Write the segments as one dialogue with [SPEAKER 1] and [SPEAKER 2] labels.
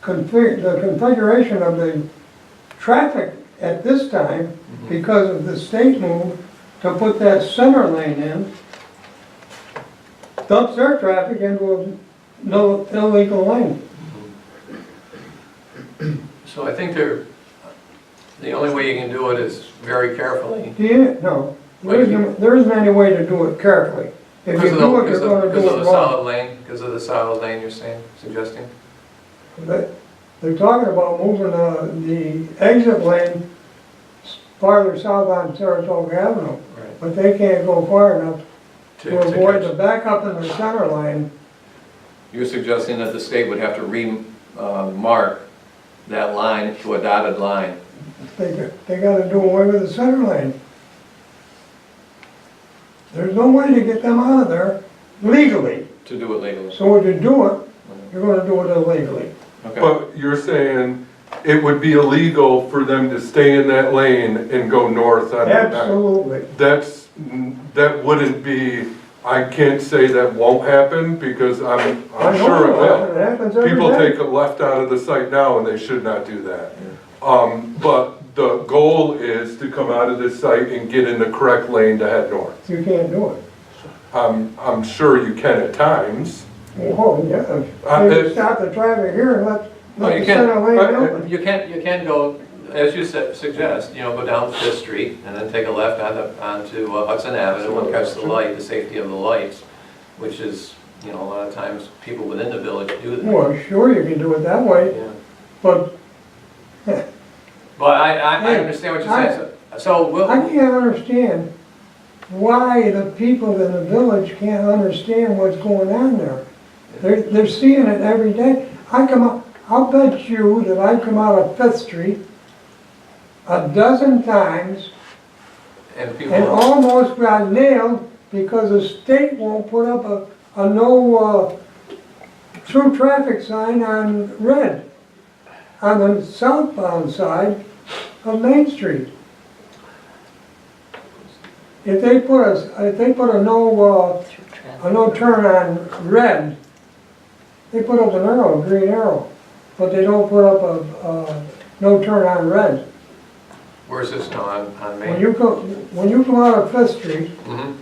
[SPEAKER 1] config, the configuration of the traffic at this time
[SPEAKER 2] Hmm.
[SPEAKER 1] because of the state move to put that center lane in, dumps their traffic into a no illegal lane.
[SPEAKER 2] So I think they're, the only way you can do it is very carefully.
[SPEAKER 1] Do you, no, there isn't, there isn't any way to do it carefully. If you
[SPEAKER 2] Because of the-
[SPEAKER 1] do it, you're
[SPEAKER 2] because of-
[SPEAKER 1] gonna
[SPEAKER 2] Because
[SPEAKER 1] do
[SPEAKER 2] of
[SPEAKER 1] it
[SPEAKER 2] the
[SPEAKER 1] wrong.
[SPEAKER 2] solid lane, because of the solid lane you're saying, suggesting?
[SPEAKER 1] They- They're talking about moving uh, the exit lane farther south on Saratoga Avenue,
[SPEAKER 2] Right.
[SPEAKER 1] but they can't go far enough to
[SPEAKER 2] To- to
[SPEAKER 1] avoid
[SPEAKER 2] catch-
[SPEAKER 1] the backup in the center lane.
[SPEAKER 3] You're suggesting that the state would have to remark that line to a dotted line?
[SPEAKER 1] They, g- they gotta do away with the center lane. There's no way to get them out of there legally.
[SPEAKER 3] To do it legally.
[SPEAKER 1] So if you do it, you're gonna do it illegally.
[SPEAKER 3] Okay.
[SPEAKER 4] But you're saying it would be illegal for them to stay in that lane and go north on that nine?
[SPEAKER 1] Absolutely.
[SPEAKER 4] That's, that wouldn't be, I can't say that won't happen because I'm, I'm
[SPEAKER 1] I know
[SPEAKER 4] sure it
[SPEAKER 1] happens.
[SPEAKER 4] will.
[SPEAKER 1] It happens every
[SPEAKER 4] People
[SPEAKER 1] day.
[SPEAKER 4] take a left out of the site now and they should not do that. Um, but the goal is to come out of this site and get in the correct lane to head north.
[SPEAKER 1] You can't do it.
[SPEAKER 4] I'm, I'm sure you can at times.
[SPEAKER 1] Oh, yeah,
[SPEAKER 4] Uh,
[SPEAKER 1] they
[SPEAKER 4] it-
[SPEAKER 1] stop the traffic here and let,
[SPEAKER 2] No,
[SPEAKER 1] let
[SPEAKER 2] you
[SPEAKER 1] the
[SPEAKER 2] can't.
[SPEAKER 1] center lane
[SPEAKER 4] Uh, uh,
[SPEAKER 1] open.
[SPEAKER 2] You can, you can go, as you said- suggest, you know, go down Fifth Street and then take a left onto, onto uh, Hudson Avenue and catch the light, the safety of the lights, which is, you know, a lot of times people within the village do that.
[SPEAKER 1] Well, sure, you can do it that way,
[SPEAKER 2] Yeah.
[SPEAKER 1] but
[SPEAKER 2] But I, I, I
[SPEAKER 1] Hey,
[SPEAKER 2] understand what you're saying, so, so we'll,
[SPEAKER 1] I can't understand why the people in the village can't understand what's going on there. They're, they're seeing it every day. I come up, I'll bet you that I come out of Fifth Street a dozen times
[SPEAKER 2] and
[SPEAKER 1] and
[SPEAKER 2] people,
[SPEAKER 1] almost got nailed because the state won't put up a, a no, uh, true traffic sign on red, on the southbound side of Main Street. If they put a, if they put a no, uh, a no turn on red, they put up an arrow, a green arrow, but they don't put up a, uh, no turn on red.
[SPEAKER 2] where's this now, on, on
[SPEAKER 1] When
[SPEAKER 2] Main?
[SPEAKER 1] you go, when you come out of Fifth Street,
[SPEAKER 2] Mhm.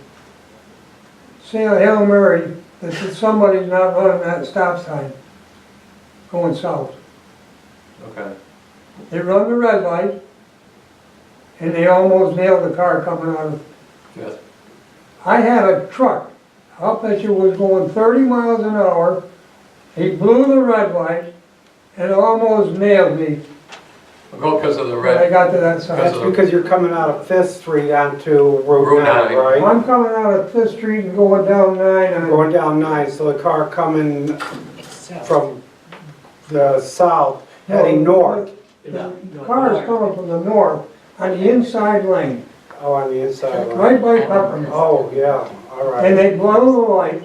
[SPEAKER 1] say a Hail Mary, that somebody's not running that stop sign going south.
[SPEAKER 2] Okay,
[SPEAKER 1] They run the red light, and they almost nailed the car coming out of.
[SPEAKER 2] yes,
[SPEAKER 1] I had a truck, I'll bet you was going thirty miles an hour, he blew the red light, and almost nailed me
[SPEAKER 2] go because of the
[SPEAKER 1] when I
[SPEAKER 2] red,
[SPEAKER 1] got to that
[SPEAKER 2] Because
[SPEAKER 1] side.
[SPEAKER 5] That's
[SPEAKER 2] of the-
[SPEAKER 5] because you're coming out of Fifth Street onto Route
[SPEAKER 2] Route
[SPEAKER 5] nine,
[SPEAKER 2] nine.
[SPEAKER 5] right?
[SPEAKER 1] I'm coming out of Fifth Street and going down nine, and
[SPEAKER 5] Going down nine, so the car coming from the south, heading
[SPEAKER 1] No,
[SPEAKER 5] north,
[SPEAKER 1] the car is coming from the north on the inside lane,
[SPEAKER 5] oh, on the inside line.
[SPEAKER 1] right by Peppermint.
[SPEAKER 5] Oh, yeah, all
[SPEAKER 1] And
[SPEAKER 5] right.
[SPEAKER 1] they blow the light,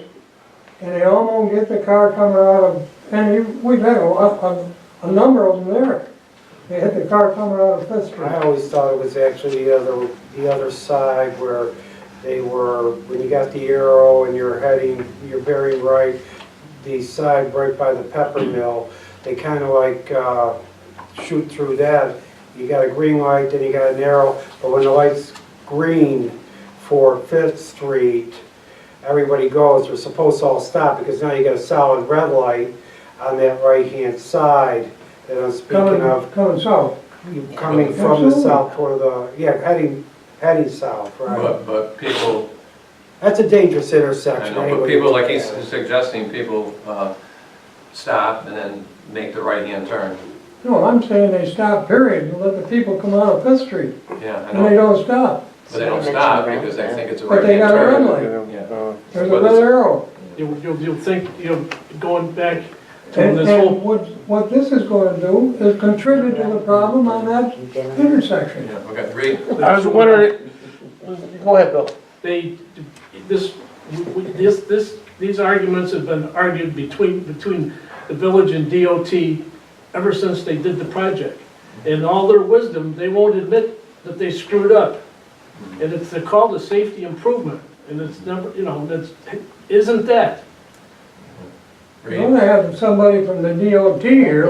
[SPEAKER 1] and they almost get the car coming out of, and you- we've had a lot, a, a number of them there. They hit the car coming out of Fifth
[SPEAKER 5] I
[SPEAKER 1] Street.
[SPEAKER 5] always thought it was actually the other, the other side where they were, when you got the arrow and you're heading, you're very right, the side right by the pepper mill, they kind of like uh, shoot through that. You got a green light, then you got an arrow, but when the light's green for Fifth Street, everybody goes, they're supposed to all stop, because now you got a solid red light on that right-hand side that I'm speaking
[SPEAKER 1] Coming,
[SPEAKER 5] of.
[SPEAKER 1] coming south.
[SPEAKER 5] You Coming from the
[SPEAKER 1] Absolutely.
[SPEAKER 5] south toward the, yeah, heading, heading south, right?
[SPEAKER 2] but, but people,
[SPEAKER 5] That's a dangerous
[SPEAKER 2] I
[SPEAKER 5] intersection
[SPEAKER 2] know, but
[SPEAKER 5] anyway.
[SPEAKER 2] people, like he's suggesting, people, uh, stop and then make the right-hand turn,
[SPEAKER 1] No, I'm saying they stop period and let the people come out of Fifth Street,
[SPEAKER 2] yeah, I
[SPEAKER 1] and they
[SPEAKER 2] know,
[SPEAKER 1] don't stop.
[SPEAKER 2] but they don't stop because they think it's a
[SPEAKER 1] But they
[SPEAKER 2] right-hand
[SPEAKER 1] got a red
[SPEAKER 2] turn.
[SPEAKER 1] light,
[SPEAKER 2] Yeah.
[SPEAKER 1] there's a red arrow.
[SPEAKER 6] You'll, you'll you'll think, you know, going back to
[SPEAKER 1] And,
[SPEAKER 6] this whole,
[SPEAKER 1] and what, what this is gonna do is contribute to the problem on that intersection.
[SPEAKER 2] Yeah, okay, read.
[SPEAKER 7] I was wondering, go ahead, Bill.
[SPEAKER 6] they, this, we- this, this, these arguments have been argued between, between the village and DOT ever since they did the project. In all their wisdom, they won't admit that they screwed up. And it's they're called a safety improvement, and it's never, you know, that's, isn't that?
[SPEAKER 1] You're gonna have somebody from the DOT here